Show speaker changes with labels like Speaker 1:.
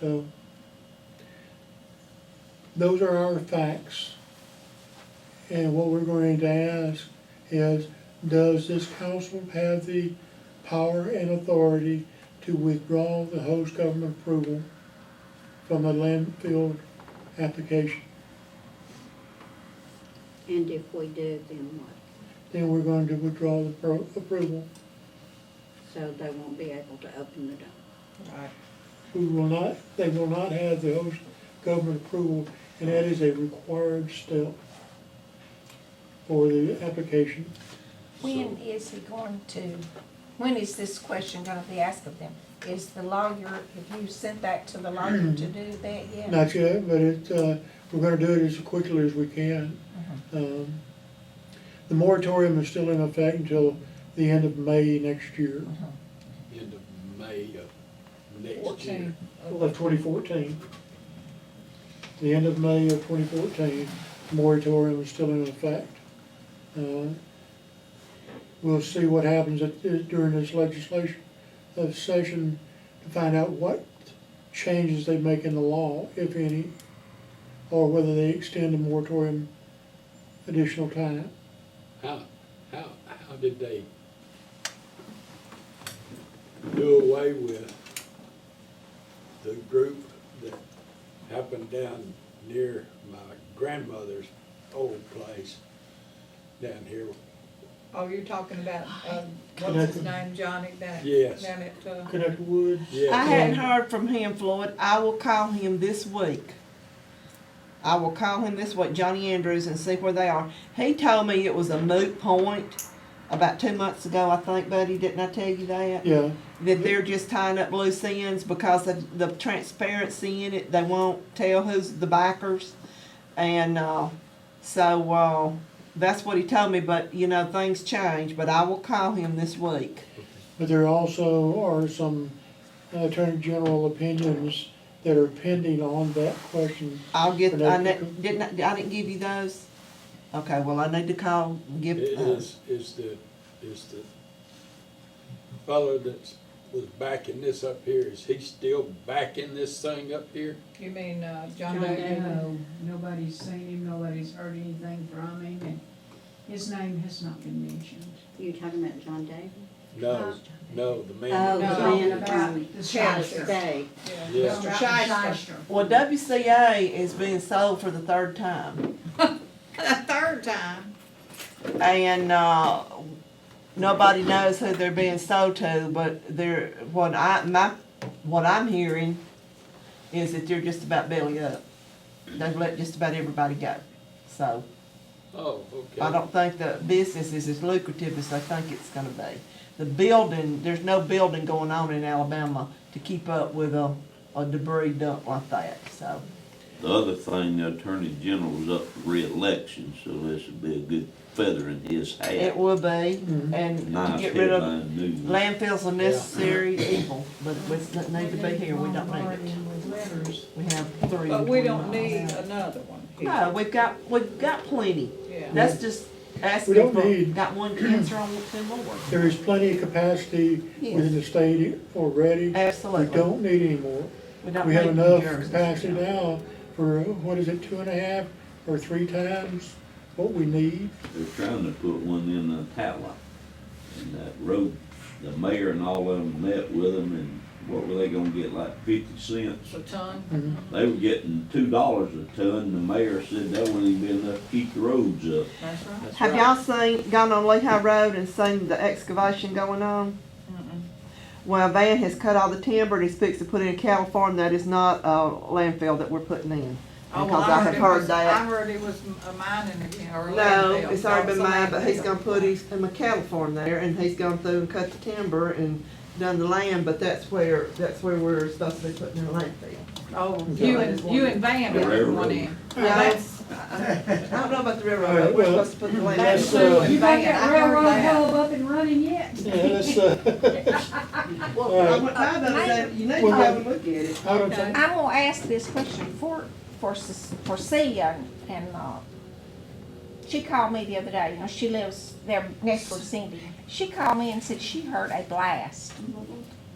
Speaker 1: So, those are our facts. And what we're going to ask is, does this council have the power and authority to withdraw the host government approval from the landfill application?
Speaker 2: And if we do, then what?
Speaker 1: Then we're going to withdraw the pro- approval.
Speaker 2: So they won't be able to open the dump.
Speaker 3: Right.
Speaker 1: We will not, they will not have the host government approval, and that is a required step for the application.
Speaker 3: When is he going to, when is this question gonna be asked of them? Is the lawyer, have you sent that to the lawyer to do that yet?
Speaker 1: Not yet, but it, uh, we're gonna do it as quickly as we can. Um, The moratorium is still in effect until the end of May next year,
Speaker 4: end of May of next year.
Speaker 1: of twenty fourteen. The end of May of twenty fourteen, moratorium is still in effect. Uh, We'll see what happens at- uh, during this legislation, uh, session to find out what changes they make in the law, if any, or whether they extend the moratorium additional time.
Speaker 4: How, how, how did they do away with the group that happened down near my grandmother's old place down here?
Speaker 5: Oh, you're talking about, um,
Speaker 1: Can
Speaker 5: what's
Speaker 1: I-
Speaker 5: his name, Johnny, down at,
Speaker 4: Yes.
Speaker 5: down at, uh,
Speaker 1: Connect Woods.
Speaker 6: I
Speaker 4: Yeah,
Speaker 6: hadn't heard from him, Floyd. I will call him this week. I will call him this week, Johnny Andrews, and see where they are. He told me it was a moot point about two months ago, I think, buddy. Didn't I tell you that?
Speaker 1: Yeah,
Speaker 6: That they're just tying up loose ends because of the transparency in it. They won't tell who's the backers. And uh, so uh, that's what he told me, but you know, things change. But I will call him this week.
Speaker 1: but there also are some Attorney General opinions that are pending on that question.
Speaker 6: I'll get, I
Speaker 1: Hello,
Speaker 6: ne-
Speaker 1: Cooper.
Speaker 6: didn't, I I didn't give you those? Okay, well, I need to call, and give,
Speaker 4: It
Speaker 6: uh,
Speaker 4: is, is the, is the fellow that was backing this up here, is he still backing this thing up here?
Speaker 5: you mean, uh, John
Speaker 7: John
Speaker 5: Doe?
Speaker 7: Doe, nobody's seen him, nobody's heard anything from him, and his name has not been mentioned.
Speaker 2: You talking about John Davis?
Speaker 4: No, no, the man.
Speaker 2: Oh,
Speaker 4: that
Speaker 2: the
Speaker 4: was
Speaker 5: No.
Speaker 2: man of
Speaker 7: About
Speaker 2: um,
Speaker 7: the
Speaker 5: Chester.
Speaker 7: Shyster.
Speaker 2: State.
Speaker 4: Yeah.
Speaker 7: About the
Speaker 5: Shyster.
Speaker 7: Shyster.
Speaker 6: well, WCA is being sold for the third time.
Speaker 5: Third time,
Speaker 6: And, uh, nobody knows who they're being sold to, but they're, what I, my, what I'm hearing is that they're just about belly up. They've let just about everybody go. So
Speaker 4: Oh, okay.
Speaker 6: I don't think the business is as lucrative as they think it's gonna be. The building, there's no building going on in Alabama to keep up with a, a debris dump like that, so.
Speaker 8: The other thing, the attorney general was up for reelection, so this would be a good feather in his hat.
Speaker 6: It will be,
Speaker 1: Mhm.
Speaker 6: and to
Speaker 8: Nice
Speaker 6: get rid of
Speaker 8: headline news.
Speaker 6: landfills a necessary evil, but it doesn't need to be here, we don't need it.
Speaker 7: Bombarded with letters.
Speaker 6: We have three.
Speaker 5: but
Speaker 6: in
Speaker 5: we
Speaker 6: 20
Speaker 5: don't
Speaker 6: miles.
Speaker 5: need another one here,
Speaker 6: No, we've got, we've got plenty.
Speaker 5: yeah.
Speaker 6: That's just asking
Speaker 1: don't
Speaker 6: for,
Speaker 1: need-
Speaker 6: got one cancer on two more.
Speaker 1: There is plenty of capacity within the state already. We
Speaker 6: Absolutely.
Speaker 1: don't need any more.
Speaker 6: don't
Speaker 1: We have
Speaker 6: need New
Speaker 1: enough
Speaker 6: Jersey.
Speaker 1: capacity now for, what is it, two and a half or three times what we need?
Speaker 8: They're trying to put one in Atala. And that road, the mayor and all of them met with them and what were they gonna get, like fifty cents?
Speaker 5: So Tom,
Speaker 1: Mhm.
Speaker 8: They were getting two dollars a ton. The mayor said that wouldn't even be enough to keep the roads up.
Speaker 5: that's right.
Speaker 6: Have y'all seen, gone on Lehigh Road and seen the excavation going on? Well, a van has cut all the timber and he's fixed to put in a cattle farm that is not a landfill that we're putting in.
Speaker 5: Oh, well,
Speaker 6: Because I have
Speaker 5: it
Speaker 6: heard
Speaker 5: was-
Speaker 6: that.
Speaker 5: I heard it was a mining account, or a
Speaker 6: No,
Speaker 5: landfill.
Speaker 6: it's
Speaker 5: That
Speaker 6: already been
Speaker 5: was a
Speaker 6: mine, but he's
Speaker 5: landfill.
Speaker 6: gonna put his, him a cattle farm there and he's gone through and cut the timber and done the land, but that's where, that's where we're supposed to be putting in a landfill.
Speaker 5: Oh, you and, you and Van
Speaker 8: The
Speaker 5: did one
Speaker 8: railroad.
Speaker 5: in.
Speaker 6: No, that's, I, I don't know about the railroad, but we're supposed to put the
Speaker 1: That's,
Speaker 6: landfill.
Speaker 1: uh,
Speaker 5: You
Speaker 7: You got
Speaker 5: think
Speaker 7: that
Speaker 5: I heard
Speaker 7: railroad
Speaker 5: that?
Speaker 7: hole up and running yet?
Speaker 1: Yeah, that's, uh,
Speaker 6: Well, I went by the other day, you need to have a look at it.
Speaker 1: I don't think-
Speaker 9: I'm gonna ask this question for, for, Sus- for Celia, and, uh, she called me the other day, you know, she lives there next to Cindy. She called me and said she heard a blast